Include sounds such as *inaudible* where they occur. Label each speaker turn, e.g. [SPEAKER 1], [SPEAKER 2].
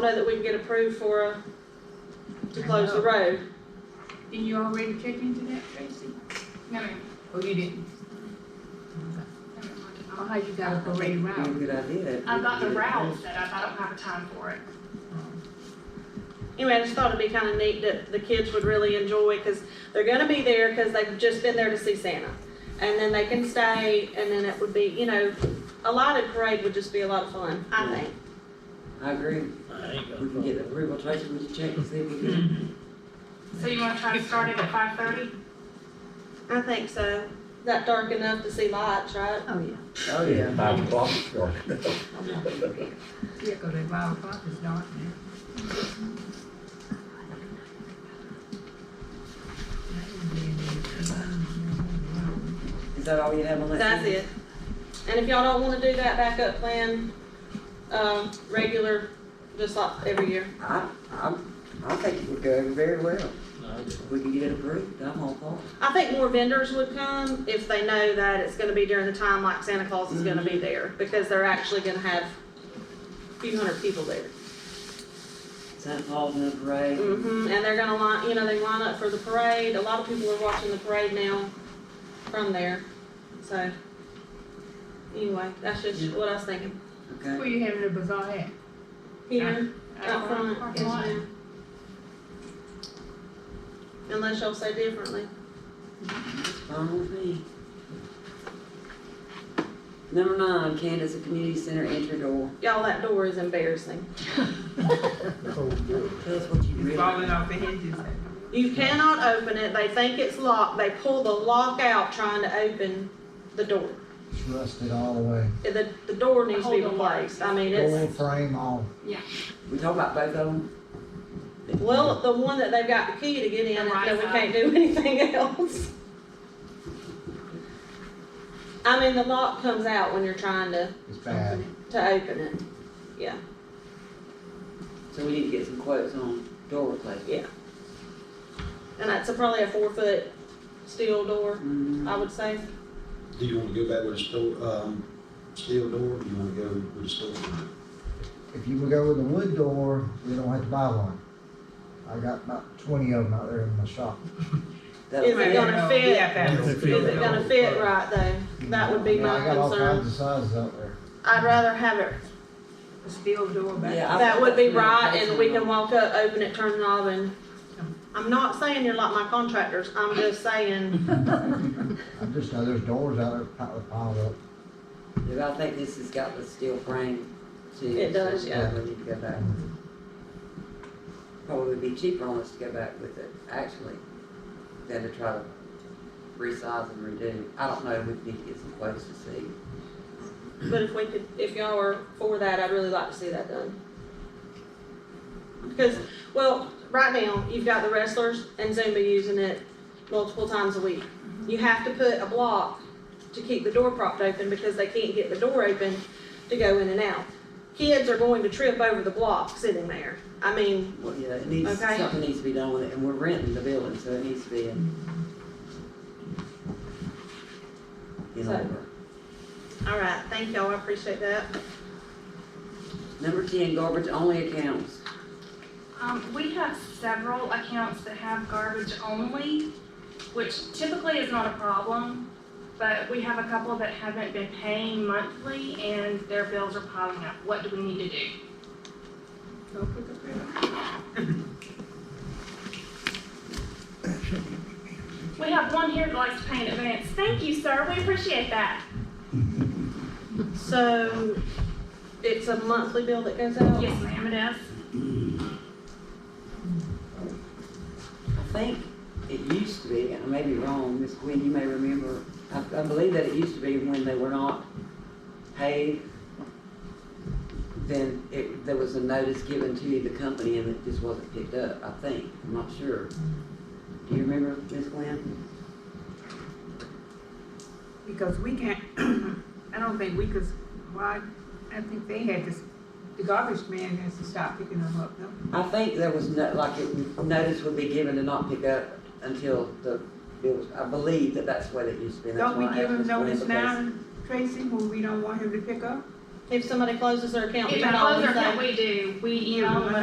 [SPEAKER 1] know that we can get approved for, uh, to close the road.
[SPEAKER 2] Did you already check into that, Tracy?
[SPEAKER 3] No, ma'am.
[SPEAKER 2] Oh, you didn't?
[SPEAKER 3] No, ma'am,
[SPEAKER 2] Oh, how you got a parade route?
[SPEAKER 4] Good idea.
[SPEAKER 3] I got the route set up, I don't have a time for it.
[SPEAKER 1] Anyway, I just thought it'd be kind of neat that the kids would really enjoy because they're gonna be there because they've just been there to see Santa. And then they can stay and then it would be, you know, a lighted parade would just be a lot of fun, I think.
[SPEAKER 4] I agree. We can get the approval, Tracy, we should check and see if we can.
[SPEAKER 3] So you wanna try to start it at five thirty?
[SPEAKER 1] I think so. Not dark enough to see lights, right?
[SPEAKER 2] Oh, yeah.
[SPEAKER 4] Oh, yeah.
[SPEAKER 5] Five o'clock start.
[SPEAKER 2] Yeah, 'cause at five o'clock it's dark now.
[SPEAKER 4] Is that all you have on that?
[SPEAKER 1] That's it. And if y'all don't wanna do that backup plan, um, regular, just like every year.
[SPEAKER 4] I, I, I think it would go over very well. If we can get it approved, I'm all for it.
[SPEAKER 1] I think more vendors would come if they know that it's gonna be during the time like Santa Claus is gonna be
[SPEAKER 3] Mm-hmm.
[SPEAKER 1] there, because they're actually gonna have a few hundred people there.
[SPEAKER 4] Santa Claus in the parade.
[SPEAKER 1] hmm and they're gonna line, you know, they line up for the parade, a lot of people are watching the parade now from there, so. Anyway, that's just what I was thinking.
[SPEAKER 4] Okay.
[SPEAKER 2] Where you having the bazaar at?
[SPEAKER 1] Here, out front, yes
[SPEAKER 3] Parking lot.
[SPEAKER 1] ma'am. Unless y'all say differently.
[SPEAKER 4] It's fine with me. Number nine, Candace, the community center entry door.
[SPEAKER 1] Y'all, that door is embarrassing.
[SPEAKER 4] Tell us what you
[SPEAKER 2] It's
[SPEAKER 4] really.
[SPEAKER 2] falling off the hinges.
[SPEAKER 1] You cannot open it. They think it's locked. They pull the lock out trying to open the door.
[SPEAKER 6] It's rusted all the way.
[SPEAKER 1] The, the door needs to be
[SPEAKER 3] Hold on.
[SPEAKER 1] replaced. I mean,
[SPEAKER 6] Door
[SPEAKER 1] it's,
[SPEAKER 6] frame all.
[SPEAKER 4] We talk about both of them.
[SPEAKER 1] well, the one that they've got the key to get in,
[SPEAKER 3] The right
[SPEAKER 1] so we
[SPEAKER 3] side.
[SPEAKER 1] can't do anything else. I mean, the lock comes out when you're trying to,
[SPEAKER 6] It's bad.
[SPEAKER 1] to open it.
[SPEAKER 4] So we need to get some quotes on door replacement.
[SPEAKER 1] And that's a- probably a four foot steel door,
[SPEAKER 4] Mm-hmm.
[SPEAKER 1] I would say.
[SPEAKER 7] Do you wanna go back with a steel, um, steel door, or do you wanna go with a steel door?
[SPEAKER 6] If you would go with a wood door, we don't have to buy one. I got about twenty of them out there in my shop.
[SPEAKER 4] That'll
[SPEAKER 1] Is it
[SPEAKER 4] fit.
[SPEAKER 1] gonna fit?
[SPEAKER 2] fit?
[SPEAKER 1] Is it gonna fit right though? That would be
[SPEAKER 6] Yeah,
[SPEAKER 1] my
[SPEAKER 6] I got all kinds
[SPEAKER 1] concern.
[SPEAKER 6] of sizes out there.
[SPEAKER 1] I'd rather have it
[SPEAKER 2] Steel door back.
[SPEAKER 4] Yeah, I-
[SPEAKER 1] That would be right, and we can walk up, open it, turn the knob, and, I'm not saying you're like my contractors, I'm just saying, *laughs*
[SPEAKER 6] I just know there's doors out there piled piled up.
[SPEAKER 4] Yeah, I think this has got the steel frame too.
[SPEAKER 1] It does,
[SPEAKER 4] so
[SPEAKER 1] yeah.
[SPEAKER 4] We need to go back. Probably be cheaper on us to go back with it, actually, than to try to resize and redo. I don't know, we need to get some quotes to see.
[SPEAKER 1] but if we could, if y'all are for that, I'd really like to see that done. Because, well, right now, you've got the wrestlers and Zumba using it multiple times a week. You have to put a block to keep the door propped open, because they can't get the door open to go in and out. Kids are going to trip over the block sitting there, I mean,
[SPEAKER 4] Well, yeah, it needs,
[SPEAKER 1] Okay.
[SPEAKER 4] something needs to be done with it, and we're renting the building, so it needs to be in. In
[SPEAKER 1] So-
[SPEAKER 4] order.
[SPEAKER 1] All right, thank y'all, I appreciate that.
[SPEAKER 4] Number ten, garbage only accounts.
[SPEAKER 3] Um, we have several accounts that have garbage only, which typically is not a problem. But we have a couple that haven't been paying monthly and their bills are piling up. What do we need to do?
[SPEAKER 2] Don't put the bill.
[SPEAKER 3] We have one here that likes to pay in advance. Thank you, sir, we appreciate that.
[SPEAKER 1] So, it's a monthly bill that goes out?
[SPEAKER 3] Yes, ma'am, it is.
[SPEAKER 4] I think it used to be, and I may be wrong, Miss Gwen, you may remember, I, I believe that it used to be when they were not paid, then it, there was a notice given to the company and it just wasn't picked up, I think, I'm not sure. Do you remember, Miss Gwen?
[SPEAKER 2] Because we can't, *clears throat* I don't think we could, why, I think they had to, the garbage man has to stop picking them up, no?
[SPEAKER 4] I think there was no, like, it, notice would be given to not pick up until the bill was, I believe that that's what it used to be. That's
[SPEAKER 2] Don't we
[SPEAKER 4] why I
[SPEAKER 2] give
[SPEAKER 4] asked
[SPEAKER 2] him
[SPEAKER 4] Miss Gwen
[SPEAKER 2] notice
[SPEAKER 4] because-
[SPEAKER 2] now, Tracy, when we don't want him to pick up?
[SPEAKER 1] If somebody closes their account,
[SPEAKER 3] If
[SPEAKER 1] we
[SPEAKER 3] a
[SPEAKER 1] can always
[SPEAKER 3] closer
[SPEAKER 1] say.
[SPEAKER 3] that we do, we email them